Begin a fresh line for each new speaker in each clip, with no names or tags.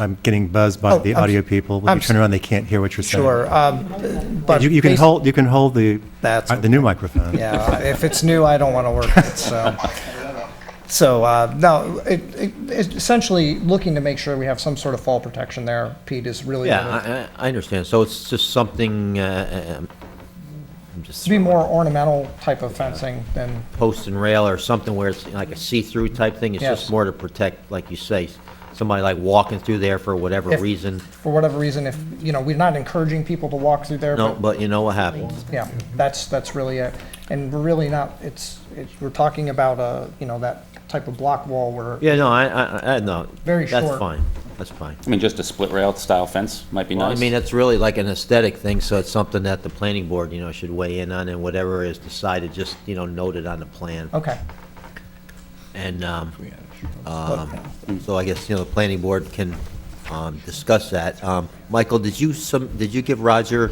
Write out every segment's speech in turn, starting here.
I'm getting buzzed by
Oh,
the
I'm s-
audio people. When
I'm
you turn
s-
around, they can't hear what you're saying.
Sure, um, but.
You you can
basi-
hold, you can hold the,
That's
uh, the new microphone.
Yeah, if it's new, I don't want to work it, so. So, uh, no, it, it, it's essentially looking to make sure we have some sort of fall protection there, Pete, is really. what it-
Yeah, I, I- I understand. So it's just something, uh, um, I'm just.
To be more ornamental type of fencing than,
Post and rail or something where it's like a see-through type thing. It's
Yes.
just more to protect, like you say, somebody like walking through there for whatever
If-
reason.
for whatever reason, if, you know, we're not encouraging people to walk through there,
No,
but,
but you know what happens.
yeah, that's, that's really it. And we're really not, it's, it's, we're talking about, uh, you know, that type of block wall where.
Yeah, no, I, I, I, no.
Very
That's
short.
fine. That's fine.
I mean, just a split rail style fence might be
Well, I
nice.
mean, that's really like an aesthetic thing, so it's something that the planning board, you know, should weigh in on and whatever is decided, just, you know, note it on the plan.
Okay,
And, um, um, so I guess, you know, the planning board can, um, discuss that. Um, Michael, did you some, did you give Roger,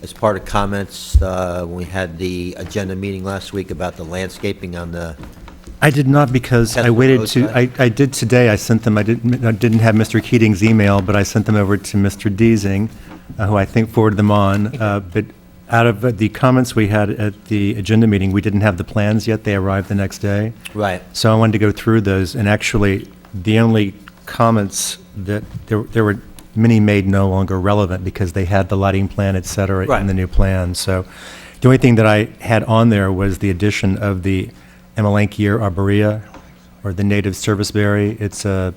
as part of comments, uh, when we had the agenda meeting last week about the landscaping on the,
I did not because I
Test
waited
those
to, I,
guys.
I did today, I sent them, I didn't, I didn't have Mr. Keating's email, but I sent them over to Mr. Deasing, uh, who I think forwarded them on. Uh, But out of uh, the comments we had at the agenda meeting, we didn't have the plans yet, they arrived the next day.
right?
So I wanted to go through those, and actually, the only comments that, there there were many made no longer relevant because they had the lighting plan, et cetera, in
Right.
the new plan. So the only thing that I had on there was the addition of the Amelanchier arborea, or the native serviceberry. It's a,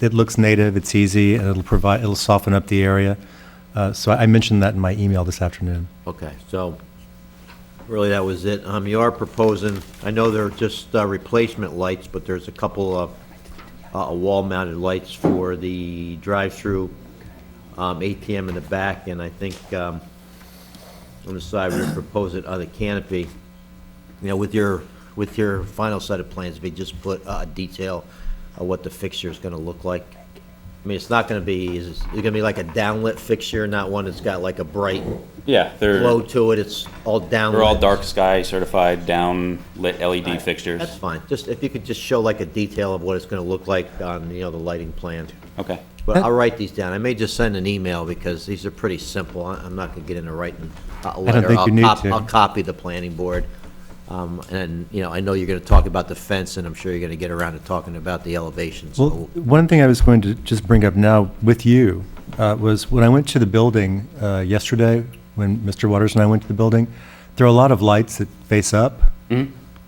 it looks native, it's easy, and it'll provide, it'll soften up the area. Uh, So I mentioned that in my email this afternoon.
Okay, so really that was it. Um, you are proposing, I know they're just uh, replacement lights, but there's a couple of, uh, wall-mounted lights for the drive-through, um, ATM in the back, and I think, um, on the side, we're proposing on the canopy. You know, with your, with your final set of plans, we just put uh, a detail of what the fixture is gonna look like. I mean, it's not gonna be, it's it's gonna be like a downlit fixture, not one that's got like a bright
yeah, they're
Low to it, it's all down.
they're all dark sky certified, down lit LED fixtures.
That's fine, just, if you could just show like a detail of what it's gonna look like on, you know, the lighting plan.
okay.
But I'll write these down, I may just send an email because these are pretty simple, I- I'm not gonna get into writing a letter.
think you
I'll
need
cop-
to.
I'll copy the planning board. Um, and, you know, I know you're gonna talk about the fence, and I'm sure you're gonna get around to talking about the elevations.
Well,
so-
one thing I was going to just bring up now with you uh, was when I went to the building uh, yesterday, when Mr. Waters and I went to the building, there are a lot of lights that face up.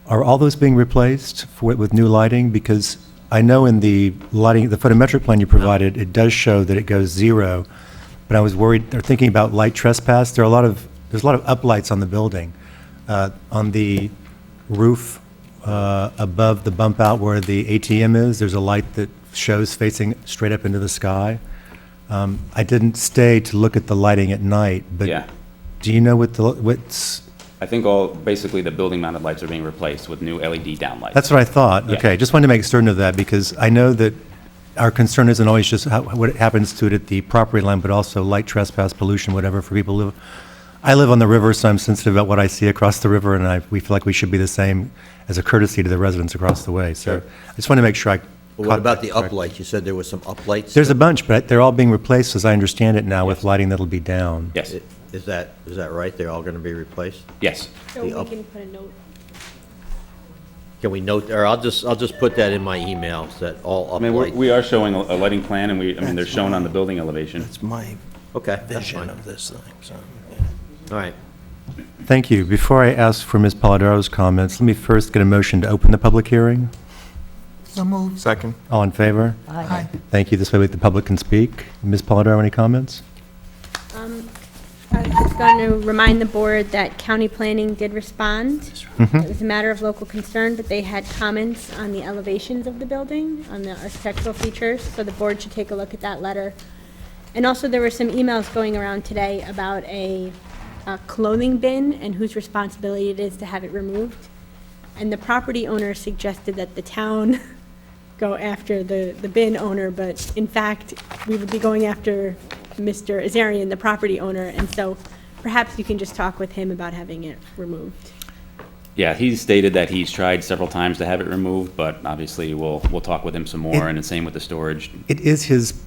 Are all those being replaced for- with new lighting? Because I know in the lighting, the photometric plan you provided, it does show that it goes zero, but I was worried, or thinking about light trespass. There are a lot of, there's a lot of uplights on the building. Uh, On the roof uh, above the bump out where the ATM is, there's a light that shows facing straight up into the sky. Um, I didn't stay to look at the lighting at night, but
Yeah.
do you know what the, what's,
I think all basically the building mounted lights are being replaced with new E LED downlights.
That's what I thought.
Yeah.
Okay, just wanted to make certain of that, because I know that our concern isn't always just how- what happens to it at the property line, but also light trespass, pollution, whatever, for people who live. I live on the river, so I'm sensitive about what I see across the river, and I, we feel like we should be the same as a courtesy to the residents across the way. So I just want to make sure I.
But What
caught
about
that
the
correct.
uplights, you said there was some uplights?
There's a bunch, but they're all being replaced, as I understand it now, with lighting that'll be down.
yes.
Is that, is that right, they're all gonna be replaced?
yes.
So
The up-
we can put a note
Can we note, or I'll just, I'll just put that in my email, that all
I mean, we're,
uplights.
we are showing a, a lighting plan, and we I mean they're shown on the building elevation.
It's my
Okay, that's
vision
fine.
of this thing, so. yeah.
All right.
Thank you. Before I ask for Ms. Polidoro's comments, let me first get a motion to open the public hearing.
So moved.
Second.
All in favor?
Aye.
Thank you. This way the public can speak. Ms. Polidoro, any comments?
I was just going to remind the board that county planning did respond. It was a matter of local concern, but they had comments on the elevations of the building, on the architectural features, so the board should take a look at that letter. And also, there were some emails going around today about a uh, clothing bin and whose responsibility it is to have it removed. And the property owner suggested that the town go after the, the bin owner, but in fact, we would be going after Mr. Azarian, the property owner, and so perhaps you can just talk with him about having it removed.
Yeah, he's stated that he's tried several times to have it removed, but obviously we'll, we'll talk with him some more, and the same with the storage.
It is his